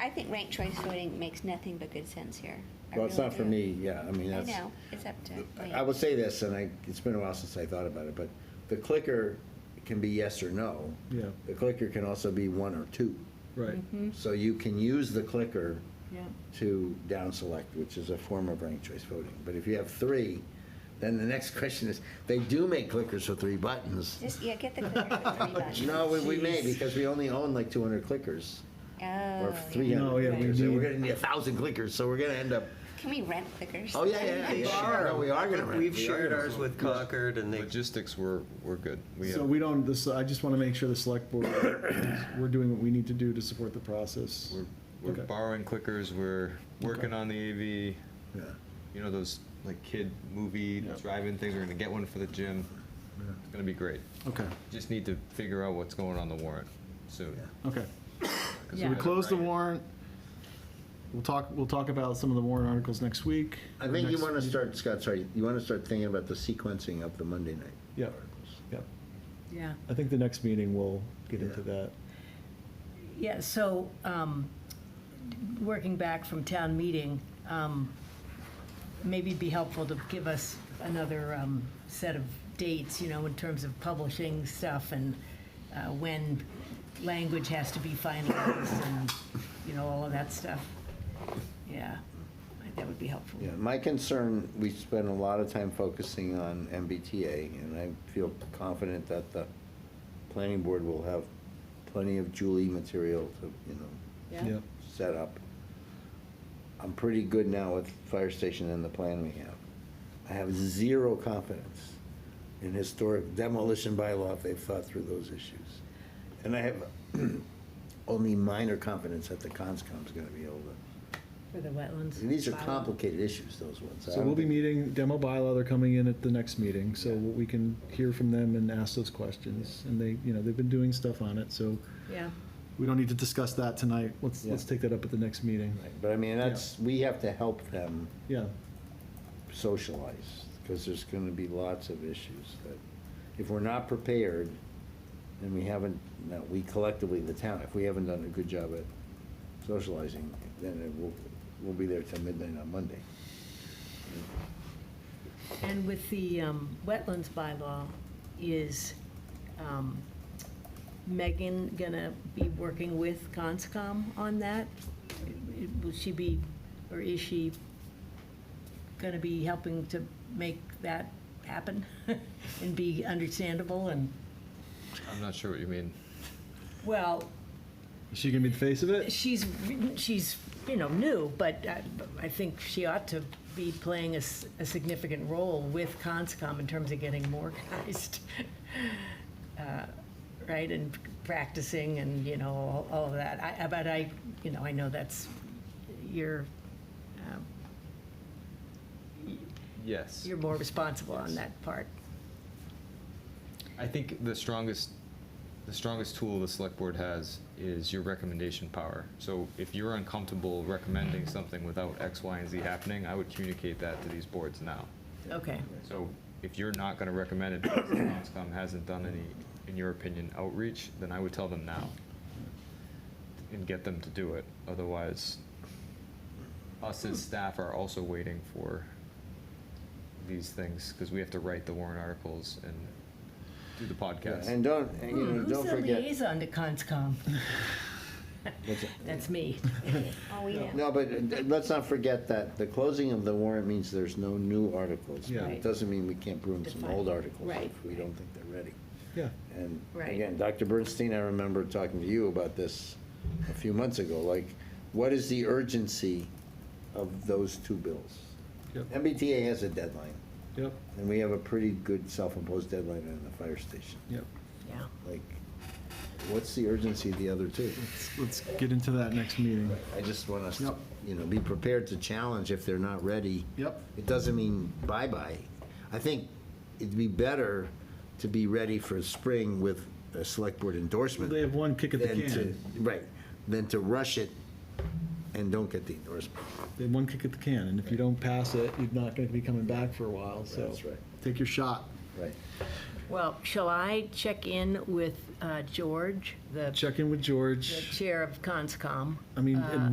I think ranked choice voting makes nothing but good sense here. I Well, it's really not for do. me, yeah, I mean, I that's. know, it's up to. I- Wayne. I will say this, and I, it's been a while since I thought about it, but the clicker can be yes or no. Yeah, The clicker can also be one or two. right. Mhm. So you can use the clicker Yeah. to down select, which is a form of ranked choice voting. But if you have three, then the next question is, they do make clickers with three buttons. Just, yeah, get the clicker with three buttons. No, we, we may, Jeez. because we only own like two hundred clickers, Oh, or yeah. three No, hundred yeah, we clickers, and we're need- gonna need a thousand clickers, so we're gonna end up, Can we rent clickers? oh, yeah, yeah, We yeah, are. no, we are gonna rent. We've we are shared gonna ours rent. with Concord and they, Logistics, we're, we're good. We So have- we don't, this, I just want to make sure the select board, is- we're doing what we need to do to support the process. we're, we're Okay. borrowing clickers, we're working on the AV, Yeah. you know, those like kid movie Yeah. drive-in things, we're gonna get one for the gym. It's gonna be great. Okay, Just need to figure out what's going on the warrant soon. okay. 'cause So we're we gonna close the write it. warrant. We'll talk, we'll talk about some of the warrant articles next week. I or think you next- wanna start, Scott, sorry, you wanna start thinking about the sequencing of the Monday night. Yep, yep. Yeah, I think the next meeting we'll get into that. yeah, so, um, working back from town meeting, um, maybe it'd be helpful to give us another, um, set of dates, you know, in terms of publishing stuff and, uh, when language has to be finalized and, you know, all of that stuff. Yeah, I think that would be helpful. Yeah, my concern, we spend a lot of time focusing on MBTA, and I feel confident that the planning board will have plenty of Julie material to, you know, Yep. set up. I'm pretty good now with fire station and the plan we have. I have zero confidence in historic demolition bylaw if they've thought through those issues. And I have only minor confidence that the conscom's gonna be able to, For the wetlands. these are bylaw. complicated issues, those ones. I So don't we'll be think- meeting, demo bylaw, they're coming in at the next meeting, so we can hear from them and ask those questions. And they, you know, they've been doing stuff on it, so Yeah, we don't need to discuss that tonight. Let's, let's Yeah. take that up at the next meeting. Right, But I mean, that's, we have to help them Yeah, socialize, because there's gonna be lots of issues that, if we're not prepared, and we haven't, no, we collectively, the town, if we haven't done a good job at socializing, then it will, we'll be there till midnight on Monday. and with the um, wetlands bylaw, is um, Megan gonna be working with Conscom on that? Will she be, or is she gonna be helping to make that happen and be understandable and, I'm not sure what you mean. well, is she gonna be the face of it? she's, she's, you know, new, but I- I think she ought to be playing a s- a significant role with Conscom in terms of getting more organized, uh, right, and practicing and, you know, all- all of that. I- I- But I, you know, I know that's your, um, Yes. you're more responsible on that part. I think the strongest, the strongest tool the select board has is your recommendation power. So if you're uncomfortable recommending Mm-hmm. something without X, Y, and Z happening, I would communicate that to these boards now. Okay, So if you're not gonna recommend it, because Conscom hasn't done any, in your opinion, outreach, then I would tell them now. And get them to do it, otherwise us as staff are also waiting for these things, because we have to write the warrant articles and do the podcast. And don't, and, you know, Hmm, Who's don't the forget. liaison to Conscom? what's it- That's me. Oh, we know. No, but uh, let's not forget that the closing of the warrant means there's no new articles. but Yeah. It doesn't mean we can't prune some Define. old articles Right. if we don't think they're ready. Yeah, And Right. again, Dr. Bernstein, I remember talking to you about this a few months ago, like, what is the urgency of those two bills? Yep. MBTA has a deadline, yep, and we have a pretty good self-imposed deadline on the fire station. yep. Yeah. Like, what's the urgency of the other two? Let's, let's get into that next meeting. I just want us to, Yep. you know, be prepared to challenge if they're not ready. Yep. It doesn't mean bye-bye. I think it'd be better to be ready for spring with a select board endorsement. They have one kick at the than to- can. Right, than to rush it and don't get the endorsement. They have one kick at the can, and if you don't pass it, you're not gonna be coming back for a while, so. That's right. Take your shot. Right. Well, shall I check in with uh, George, the Check in with the George. chair of Conscom? I mean, and